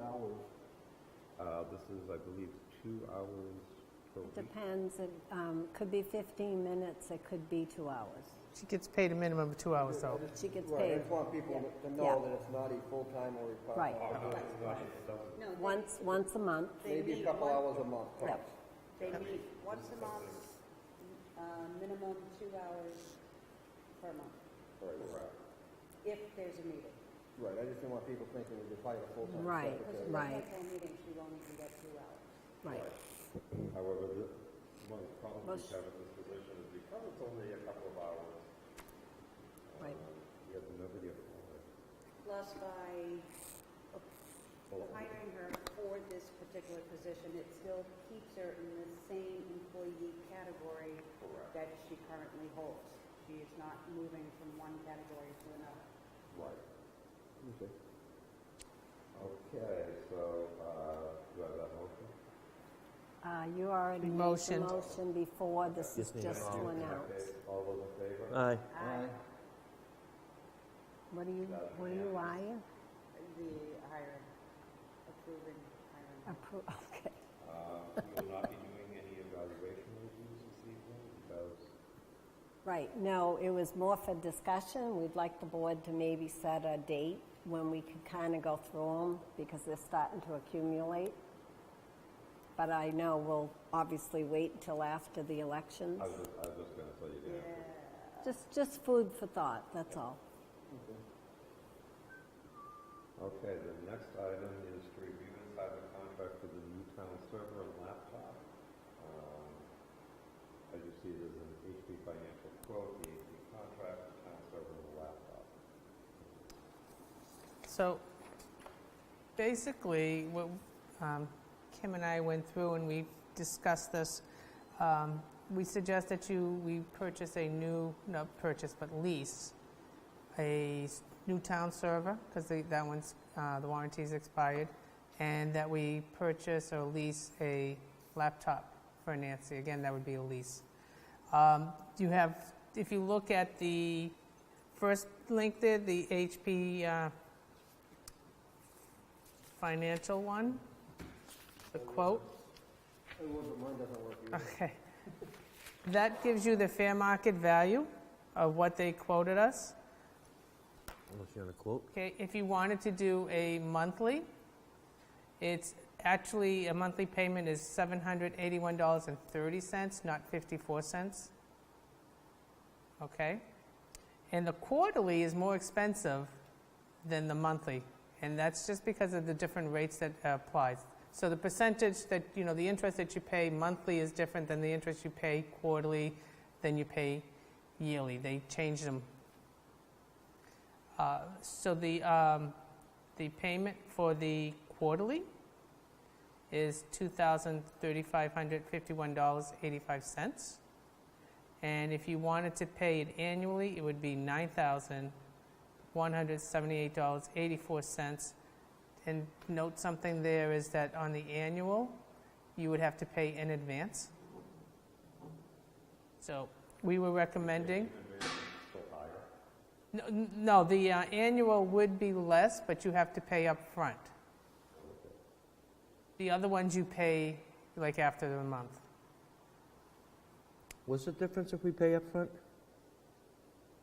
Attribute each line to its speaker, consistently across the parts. Speaker 1: hours, uh, this is, I believe, two hours per week.
Speaker 2: Depends, it um, could be 15 minutes, it could be two hours.
Speaker 3: She gets paid a minimum of two hours, though.
Speaker 2: She gets
Speaker 4: Right, I
Speaker 2: paid.
Speaker 4: just want people to
Speaker 2: Yeah.
Speaker 4: know that it's not a full-time or a
Speaker 2: Right,
Speaker 4: part-time.
Speaker 5: No, they-
Speaker 2: once, once a month.
Speaker 5: they
Speaker 4: Maybe a
Speaker 5: meet
Speaker 4: couple hours
Speaker 5: once-
Speaker 4: a month.
Speaker 2: Yep.
Speaker 5: They meet once a month, uh, minimum two hours per month,
Speaker 4: Right, right.
Speaker 5: if there's a meeting.
Speaker 4: Right, I just didn't want people thinking that they're hired a full-time
Speaker 2: Right.
Speaker 5: Because
Speaker 4: secretary.
Speaker 5: if
Speaker 2: Right.
Speaker 5: there's no meeting, she only can get two hours.
Speaker 2: Right,
Speaker 1: However, the, one of the problems
Speaker 2: Well,
Speaker 1: we
Speaker 2: sh-
Speaker 1: have in this position is because it's only a couple of hours,
Speaker 2: right.
Speaker 1: um, we have nobody for it.
Speaker 5: Plus by hiring her for this particular position, it still keeps her in the same employee category that she currently holds. She is not moving from one category to another.
Speaker 1: Right. Okay, so, uh, do I have that motion?
Speaker 2: Uh, You already made the
Speaker 3: Motioned.
Speaker 2: motion before, this is
Speaker 6: Just need a
Speaker 2: just to
Speaker 6: motion.
Speaker 2: announce.
Speaker 1: Okay, All those in favor?
Speaker 6: Aye.
Speaker 5: Aye.
Speaker 2: What do you, what do you, eyeing?
Speaker 5: The hiring, approving hiring.
Speaker 2: Appro- Okay,
Speaker 1: Uh, we will not be doing any evaluation reviews this evening because
Speaker 2: right, no, it was more for discussion. We'd like the board to maybe set a date when we could kind of go through them, because they're starting to accumulate. But I know we'll obviously wait until after the elections.
Speaker 1: I was just, I was just gonna tell you that.
Speaker 2: Just, just food for thought, that's all.
Speaker 1: Okay, the next item is to review and sign the contract for the new town server and laptop. Um, As you see, there's an HP financial quote, the HP contract, the town server and the laptop.
Speaker 3: So basically, what um, Kim and I went through and we discussed this, um, we suggest that you, we purchase a new, not purchase, but lease a s- new town server, because that one's, uh, the warranty's expired, and that we purchase or lease a laptop for Nancy. Again, that would be a lease. Um, You have, if you look at the first link there, the HP uh, financial one, the quote.
Speaker 4: It wasn't, mine doesn't work either.
Speaker 3: Okay. That gives you the fair market value of what they quoted us.
Speaker 6: Unless you want to quote.
Speaker 3: Okay, if you wanted to do a monthly, it's actually, a monthly payment is $781.30, not 54 cents. Okay? And the quarterly is more expensive than the monthly, and that's just because of the different rates that uh, applies. So the percentage that, you know, the interest that you pay monthly is different than the interest you pay quarterly, than you pay yearly. They change them uh, So the, um, the payment for the quarterly is $2,3551.85. And if you wanted to pay it annually, it would be $9,178.84. And note something there is that on the annual, you would have to pay in advance. So we were recommending. No- n- No, the uh, annual would be less, but you have to pay up front. The other ones you pay like after the month.
Speaker 6: What's the difference if we pay up front?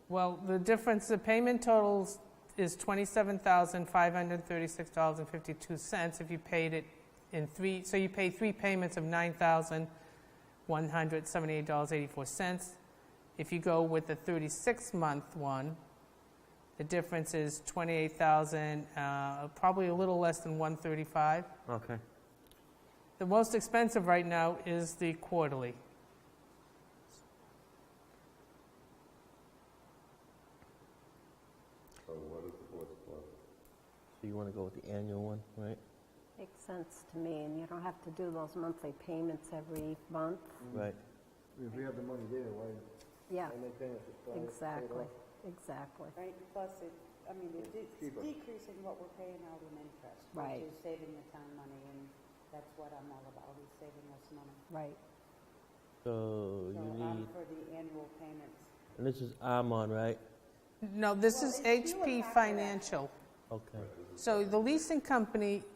Speaker 3: Well, the difference, the payment totals is $27,536.52 if you paid it in three, so you pay three payments of $9,178.84. If you go with the 36-month one, the difference is 28,000, uh, probably a little less than 135.
Speaker 6: Okay.
Speaker 3: The most expensive right now is the quarterly.
Speaker 1: So what is the board's pleasure?
Speaker 6: So you want to go with the annual one, right?
Speaker 2: Makes sense to me, and you don't have to do those monthly payments every month.
Speaker 6: Right.
Speaker 4: If we have the money there, why,
Speaker 2: Yeah,
Speaker 4: why make payments? Just buy it, pay it
Speaker 2: exactly,
Speaker 4: off.
Speaker 2: exactly.
Speaker 5: Right, plus it, I mean, it- it's
Speaker 4: Cheaper.
Speaker 5: decreasing what we're paying out in interest,
Speaker 2: Right.
Speaker 5: which is saving the town money, and that's what I'm all about, is saving us money.
Speaker 2: Right,
Speaker 6: So
Speaker 5: So um,
Speaker 6: you
Speaker 5: I'm
Speaker 6: need,
Speaker 5: for the annual payments.
Speaker 6: and this is Armon, right?
Speaker 3: No, this
Speaker 5: Well,
Speaker 3: is
Speaker 5: it's
Speaker 3: HP
Speaker 5: due after that.
Speaker 3: Financial.
Speaker 6: Okay.
Speaker 3: So the leasing company